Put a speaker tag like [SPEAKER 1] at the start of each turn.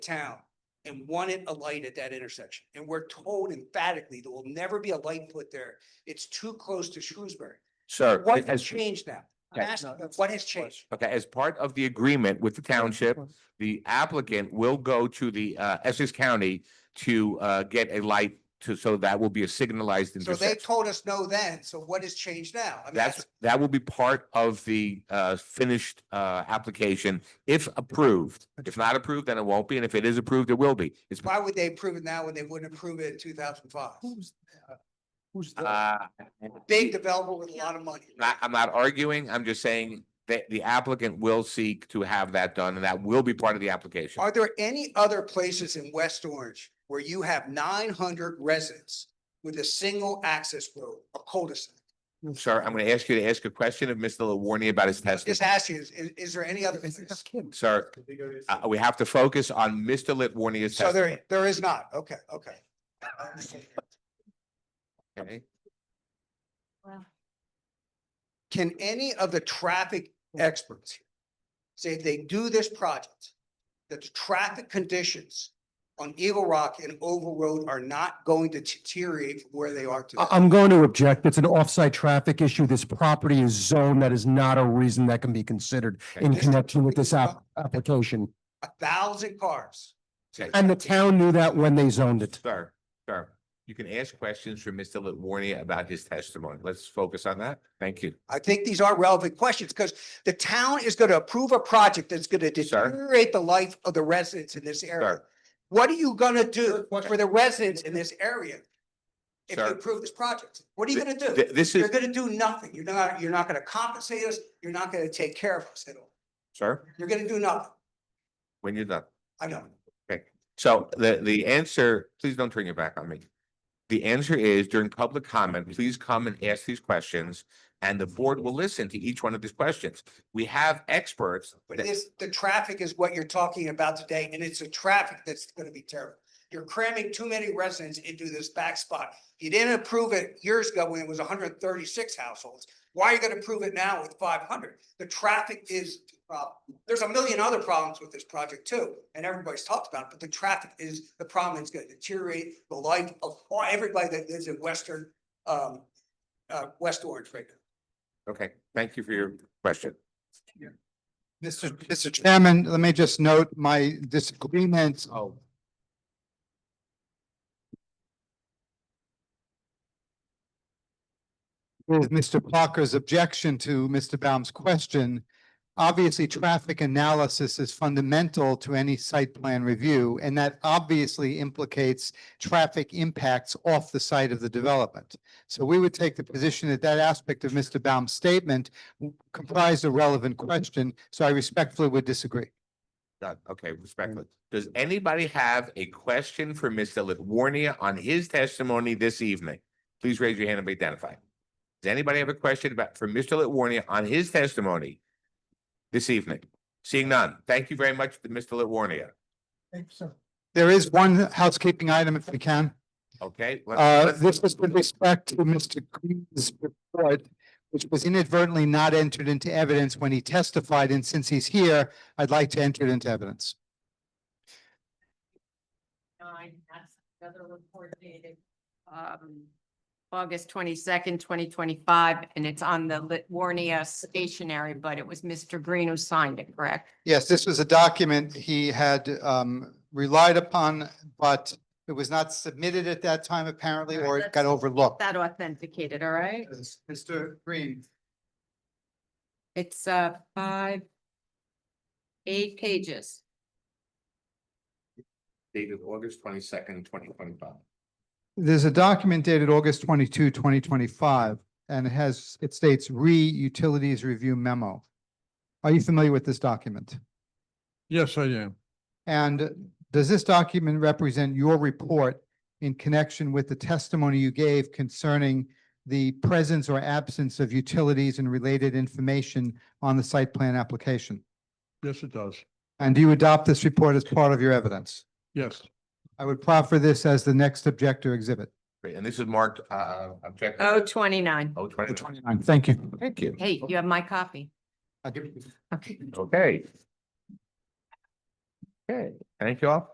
[SPEAKER 1] town and wanted a light at that intersection. And we're told emphatically there will never be a light put there. It's too close to Shrewsbury.
[SPEAKER 2] Sir,
[SPEAKER 1] What has
[SPEAKER 2] as,
[SPEAKER 1] changed now? I'm
[SPEAKER 2] Okay.
[SPEAKER 1] asking, what has changed?
[SPEAKER 2] okay, as part of the agreement with the township, the applicant will go to the uh Essex County to uh get a light to, so that will be a signalized
[SPEAKER 1] So they
[SPEAKER 2] intersection.
[SPEAKER 1] told us no then, so what has changed now? I mean,
[SPEAKER 2] That's, that will be part of the uh finished uh application if approved. If not approved, then it won't be, and if it is approved, it will be. It's,
[SPEAKER 1] Why would they approve it now when they wouldn't approve it in two thousand five?
[SPEAKER 3] Who's, uh, who's the,
[SPEAKER 2] uh,
[SPEAKER 1] Big developer with a lot of money.
[SPEAKER 2] not, I'm not arguing, I'm just saying that the applicant will seek to have that done, and that will be part of the application.
[SPEAKER 1] Are there any other places in West Orange where you have nine hundred residents with a single access road, a cul-de-sac?
[SPEAKER 2] Sir, I'm gonna ask you to ask a question of Mr. Lawarney about his testimony.
[SPEAKER 1] Just asking, is, is is there any other?
[SPEAKER 3] is it
[SPEAKER 1] place?
[SPEAKER 3] Kim?
[SPEAKER 2] Sir, uh, we have to focus on Mr. Litwarnia's
[SPEAKER 1] So
[SPEAKER 2] testimony.
[SPEAKER 1] there, there is not. Okay, okay.
[SPEAKER 2] okay?
[SPEAKER 1] Can any of the traffic experts say if they do this project, that the traffic conditions on Eagle Rock and Oval Road are not going to deteriorate from where they are today?
[SPEAKER 3] I- I'm going to object. It's an off-site traffic issue. This property is zoned. That is not a reason that can be considered in
[SPEAKER 1] This-
[SPEAKER 3] connection with this app, application.
[SPEAKER 1] A thousand cars.
[SPEAKER 2] Okay.
[SPEAKER 3] And the town knew that when they zoned it.
[SPEAKER 2] Sir, sir, you can ask questions for Mr. Litwarnia about his testimony. Let's focus on that. Thank you.
[SPEAKER 1] I think these are relevant questions because the town is going to approve a project that's going to
[SPEAKER 2] Sir.
[SPEAKER 1] deteriorate the life of the residents in this area.
[SPEAKER 2] Sir,
[SPEAKER 1] What are you going to do
[SPEAKER 2] question.
[SPEAKER 1] for the residents in this area? If you
[SPEAKER 2] Sir.
[SPEAKER 1] approve this project, what are you going to do?
[SPEAKER 2] th- this
[SPEAKER 1] You're
[SPEAKER 2] is,
[SPEAKER 1] gonna do nothing. You're not, you're not gonna compensate us. You're not gonna take care of us at all.
[SPEAKER 2] sir,
[SPEAKER 1] You're gonna do nothing.
[SPEAKER 2] when you're done.
[SPEAKER 1] I know.
[SPEAKER 2] So the, the answer, please don't turn your back on me. The answer is during public comment, please come and ask these questions and the board will listen to each one of these questions. We have experts.
[SPEAKER 1] But
[SPEAKER 2] that-
[SPEAKER 1] this, the traffic is what you're talking about today, and it's the traffic that's gonna be terrible. You're cramming too many residents into this back spot. You didn't approve it years ago when it was hundred and thirty-six households. Why are you gonna approve it now with five hundred? The traffic is, the problem. there's a million other problems with this project too, and everybody's talked about it, but the traffic is the problem. It's gonna deteriorate the life of all- everybody that lives in Western, um, uh, West Orange right now.
[SPEAKER 2] Okay, thank you for your question.
[SPEAKER 4] Mr. Mr. Chairman, let me just note my disagreement. Oh. With Mr. Parker's objection to Mr. Baum's question. Obviously, traffic analysis is fundamental to any site plan review, and that obviously implicates traffic impacts off the site of the development. So we would take the position that that aspect of Mr. Baum's statement w- comprised a relevant question, so I respectfully would disagree.
[SPEAKER 2] Done. Okay, respectfully. Does anybody have a question for Mr. Litwarnia on his testimony this evening? Please raise your hand and be identified. Does anybody have a question about, for Mr. Litwarnia on his testimony this evening? Seeing none. Thank you very much, Mr. Litwarnia.
[SPEAKER 4] There is one housekeeping item if we can.
[SPEAKER 2] Okay? let's-
[SPEAKER 4] Uh,
[SPEAKER 2] let's-
[SPEAKER 4] this is with respect to Mr. Green's report, which was inadvertently not entered into evidence when he testified, and since he's here, I'd like to enter it into evidence.
[SPEAKER 5] nine, that's another report dated. Um, August twenty-second, twenty twenty-five, and it's on the Litwarnia stationery, but it was Mr. Green who signed it, correct?
[SPEAKER 4] Yes, this was a document he had um relied upon, but it was not submitted at that time apparently, or it got overlooked.
[SPEAKER 5] That authenticated, all right?
[SPEAKER 4] Mr. Green.
[SPEAKER 5] It's, uh, five, eight pages.
[SPEAKER 2] Dated August twenty-second, twenty twenty-five.
[SPEAKER 4] There's a document dated August 22, 2025, and it has, it states re-utilities review memo. Are you familiar with this document?
[SPEAKER 6] Yes, I am.
[SPEAKER 4] And does this document represent your report in connection with the testimony you gave concerning the presence or absence of utilities and related information on the site plan application?
[SPEAKER 6] Yes, it does.
[SPEAKER 4] And do you adopt this report as part of your evidence?
[SPEAKER 6] Yes,
[SPEAKER 4] I would proffer this as the next objector exhibit.
[SPEAKER 2] Great, and this is marked, uh, objective.
[SPEAKER 5] Oh, twenty-nine.
[SPEAKER 2] Oh, 29.
[SPEAKER 4] Twenty-nine, thank you.
[SPEAKER 2] Thank you.
[SPEAKER 5] Hey, you have my copy.
[SPEAKER 4] I'll give you-
[SPEAKER 5] Okay.
[SPEAKER 2] Okay. Okay, thank you all.